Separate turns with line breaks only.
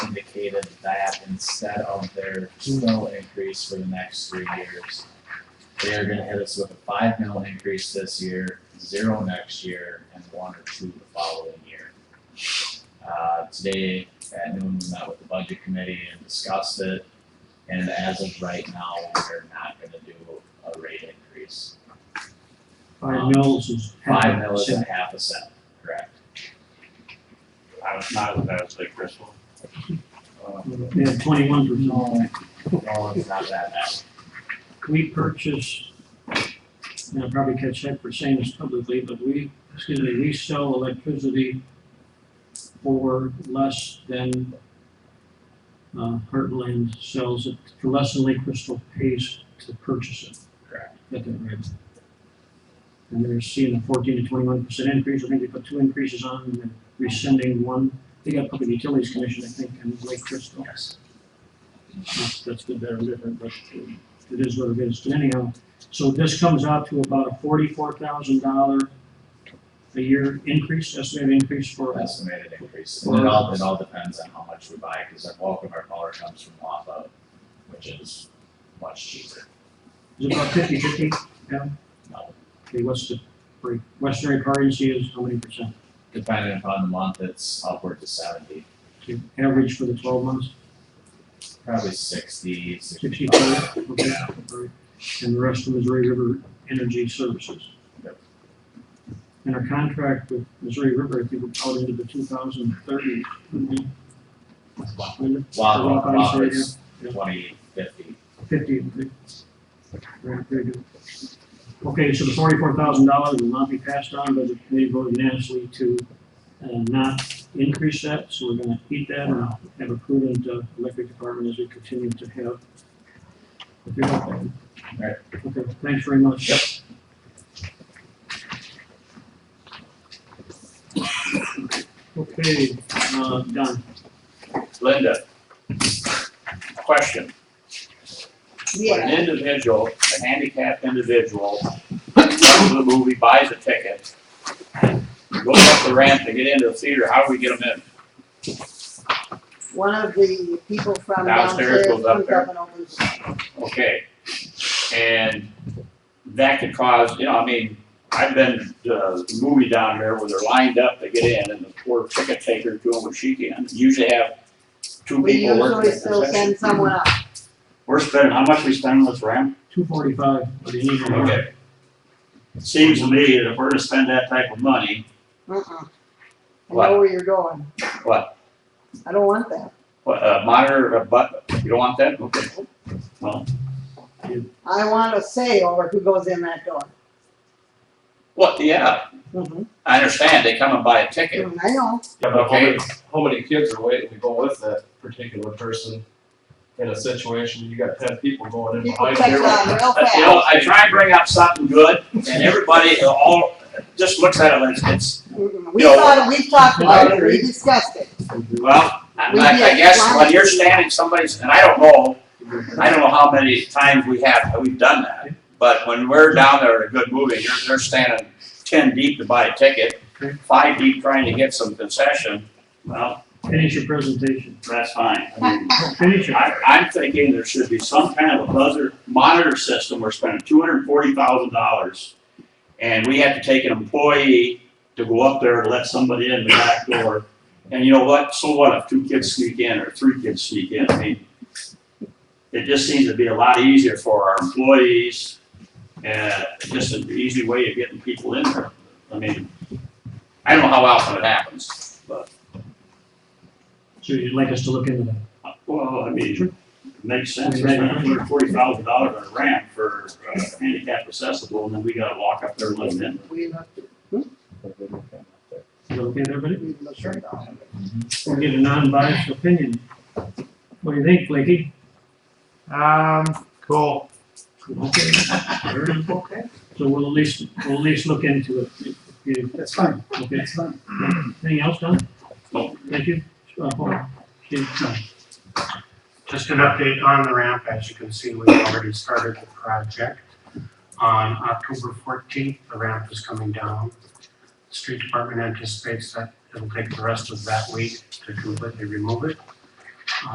allocated that instead of their two mil increase for the next three years. They are gonna hit us with a five mil increase this year, zero next year, and one or two the following year. Uh, today at noon, we met with the budget committee and discussed it, and as of right now, we're not gonna do a rate increase.
Five mills is.
Five mil is a half a cent, correct?
I was not as bad as like Chris one.
They had twenty-one percent.
No, it's not that bad.
We purchase, and I'll probably catch that for saying this publicly, but we, excuse me, we sell electricity for less than, uh, Heartland sells it, for less than Lake Crystal pays to purchase it.
Correct.
Got that right. And they're seeing a fourteen to twenty-one percent increase, I think they put two increases on, and they're rescinding one. They got Public Utilities Commission, I think, and Lake Crystal.
Yes.
That's, that's good, better, different, but it is what it is. But anyhow, so this comes out to about a forty-four thousand dollar a year increase, estimated increase for us.
Estimated increase, and it all, it all depends on how much we buy, cause the bulk of our power comes from Wafa, which is much cheaper.
Is it about fifty-fifty? Yeah.
No.
Okay, what's the, for Western currency is how many percent?
Depending upon the month, it's upward to seventy,
Okay, Average for the twelve months,
probably sixty, sixty-five.
sixty-four? Okay, all right. And the rest of Missouri River Energy Services?
Yep.
And our contract with Missouri River, I think we're out into the two thousand thirty.
Wafa,
Wafa, I'm sorry,
Wafa's
yeah.
twenty, fifty,
Fifty. Right, very good. Okay, so the forty-four thousand dollars will not be passed on, but the committee voted unanimously to uh, not increase that, so we're gonna keep that and have a prudent uh, electric department as we continue to have. If you're not
Right.
Okay, thanks very much.
Yep.
Okay, uh, Don,
Linda, question. When
Yeah,
an individual, a handicapped individual, comes to the movie, buys a ticket, goes up the ramp to get into the theater, how do we get them
one of the people from
Downstairs
downstairs
goes
comes
up
up
there.
and opens.
in? Okay. And that could cause, you know, I mean, I've been to the movie down there where they're lined up to get in and the poor ticket taker doing what she can. Usually have two
We
people working.
usually
at
still
concession.
send someone up.
We're spending, how much we spend on this ramp?
two forty-five, but you need to-
Okay. It Seems to me that if we're to spend that type of money,
Uh-uh. I
What?
know where you're going.
What?
I don't want that.
what, a monitor, a butt, you don't want that? Okay. Well,
I want a say over who goes in that door.
what, yeah,
Mhm.
I understand, they come and buy a ticket.
Mm, I know.
Yeah, but how
Okay.
many, how many kids are waiting to go with that particular person in a situation, you got ten people going in
People
behind
catch
you.
on real
But, you know,
fast.
I try and bring up something good and everybody, uh, all, just looks at it and it's,
Mm-mm. We
you know,
thought, we've talked
I
about it, we
agree.
discussed it.
well, I, I guess when you're standing somebody's, and I don't know, I don't know how many times we have, we've done that. But when we're down there at a good movie, you're, they're standing ten deep to buy a ticket, five deep trying to get some concession. Well,
Finish your presentation.
that's fine. I mean,
Finish it.
I, I'm thinking there should be some kind of a buzzer monitor system. We're spending two hundred and forty thousand dollars. And we have to take an employee to go up there and let somebody in the back door. And you know what? So what if two kids sneak in or three kids sneak in? I mean, it just seems to be a lot easier for our employees and just an easy way of getting people in there. I mean, I don't know how often it happens, but,
So you'd like us to look into that?
uh, well, I mean, Makes sense,
Right.
we're spending hundred and forty thousand dollars on a ramp for uh, handicap accessible, and then we gotta walk up there and let them
We looked,
Is that okay with everybody?
we looked at all of it.
We'll get a non-biased opinion. What do you think, Blakey?
Um, cool.
Okay. Okay. So we'll at least, we'll at least look into it. If you-
That's fine,
Okay.
that's fine.
Anything else, Don?
No.
Thank you. Uh, Paul? Okay, no.
Just an update on the ramp. As you can see, we've already started the project. On October fourteenth, the ramp is coming down. Street Department anticipates that it'll take the rest of that week to completely remove it.